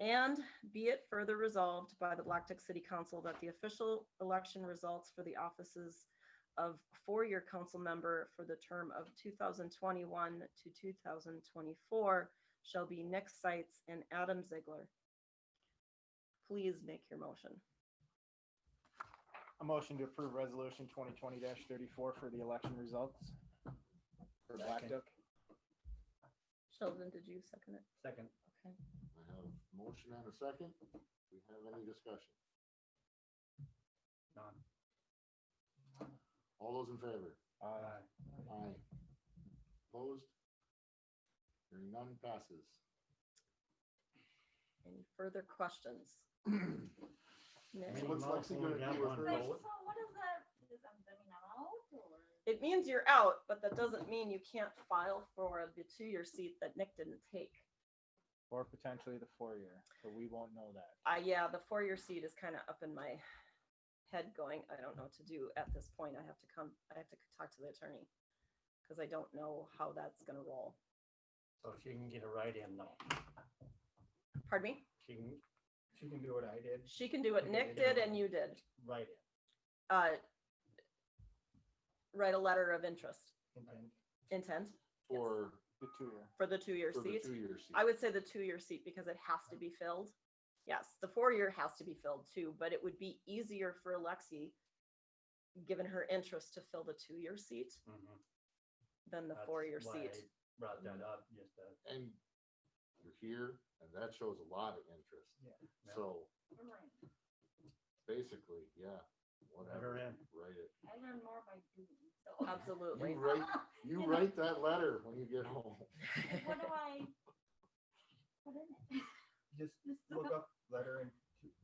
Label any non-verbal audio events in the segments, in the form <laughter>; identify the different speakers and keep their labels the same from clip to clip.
Speaker 1: And be it further resolved by the Black Duck City Council that the official election results for the offices of four-year council member for the term of 2021 to 2024 shall be Nick Seitz and Adam Ziegler. Please make your motion.
Speaker 2: A motion to approve resolution twenty twenty thirty-four for the election results. For Black
Speaker 3: Second.
Speaker 2: Duck.
Speaker 1: Sheldon, did you second it?
Speaker 3: Second.
Speaker 1: Okay.
Speaker 4: I have a motion and a second. We have any discussion?
Speaker 3: None.
Speaker 4: All those in favor?
Speaker 2: Uh,
Speaker 3: Aye.
Speaker 4: Aye. Opposed? Hearing none passes.
Speaker 1: Any further questions?
Speaker 4: I
Speaker 1: Nick?
Speaker 4: mean, what's Lexi gonna do with her
Speaker 3: Like,
Speaker 4: vote?
Speaker 5: so what is that? Is I'm coming out or?
Speaker 1: It means you're out, but that doesn't mean you can't file for the two-year seat that Nick didn't take.
Speaker 2: or potentially the four-year, but we won't know that.
Speaker 1: Uh, yeah, the four-year seat is kind of up in my head going, I don't know what to do at this point. I have to come, I have to talk to the attorney. Cause I don't know how that's gonna roll.
Speaker 3: So she can get a write-in though.
Speaker 1: Pardon me?
Speaker 3: She can. She can do what I did.
Speaker 1: She can do what Nick did and you did.
Speaker 3: Write-in.
Speaker 1: Uh, write a letter of interest, intent
Speaker 4: For,
Speaker 2: The two-year.
Speaker 1: for the two-year
Speaker 4: for the
Speaker 1: seat.
Speaker 4: two-year seat.
Speaker 1: I would say the two-year seat because it has to be filled. Yes, the four-year has to be filled too, but it would be easier for Lexi, given her interest, to fill the two-year seat
Speaker 3: Mhm.
Speaker 1: than the
Speaker 3: That's
Speaker 1: four-year
Speaker 3: why
Speaker 1: seat.
Speaker 3: I Brought that up just to.
Speaker 4: And you're here, and that shows a lot of interest.
Speaker 3: Yeah.
Speaker 4: So
Speaker 5: Right.
Speaker 4: basically, yeah,
Speaker 3: Better
Speaker 4: whatever,
Speaker 3: in.
Speaker 4: write it.
Speaker 5: I learn more by doing.
Speaker 6: <laughs>
Speaker 5: So.
Speaker 1: Absolutely.
Speaker 4: You write, you write that letter when you get home.
Speaker 5: What do I? Put in it?
Speaker 6: just
Speaker 5: Just
Speaker 6: look up letter and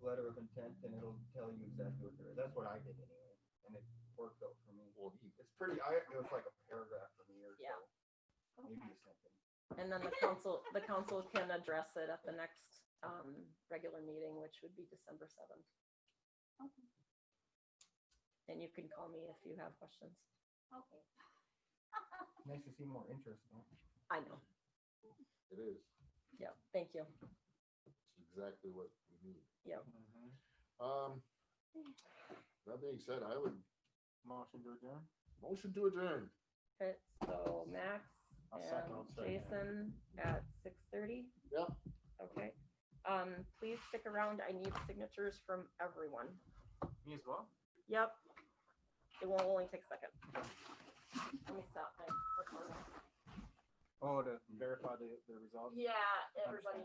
Speaker 6: letter of intent and it'll tell you exactly what there is. That's what I did anyway. And it worked out for me.
Speaker 4: Well, he-
Speaker 6: It's pretty, I, it was like a paragraph for me or so.
Speaker 1: Yeah.
Speaker 6: Maybe
Speaker 5: Okay.
Speaker 6: something.
Speaker 1: <laughs> And then the council, the council can address it at the next um, regular meeting, which would be December seventh.
Speaker 5: Okay.
Speaker 1: And you can call me if you have questions.
Speaker 5: Okay.
Speaker 6: Nice to see more interest. though.
Speaker 1: I know.
Speaker 4: It is.
Speaker 1: Yeah, thank you.
Speaker 4: It's exactly what we need.
Speaker 2: Mhm.
Speaker 4: Um, that being said, I would
Speaker 2: Motion to adjourn?
Speaker 4: motion to adjourn.
Speaker 1: Okay, so Max
Speaker 2: I'll second, I'll
Speaker 1: and
Speaker 2: second.
Speaker 1: Jason at six thirty.
Speaker 4: Yep.
Speaker 1: Okay, um, please stick around. I need signatures from everyone.
Speaker 2: Me as well?
Speaker 1: Yep. It will only take a second. Let me stop my recording.
Speaker 2: Oh, to verify the, the results?
Speaker 1: Yeah,
Speaker 2: everybody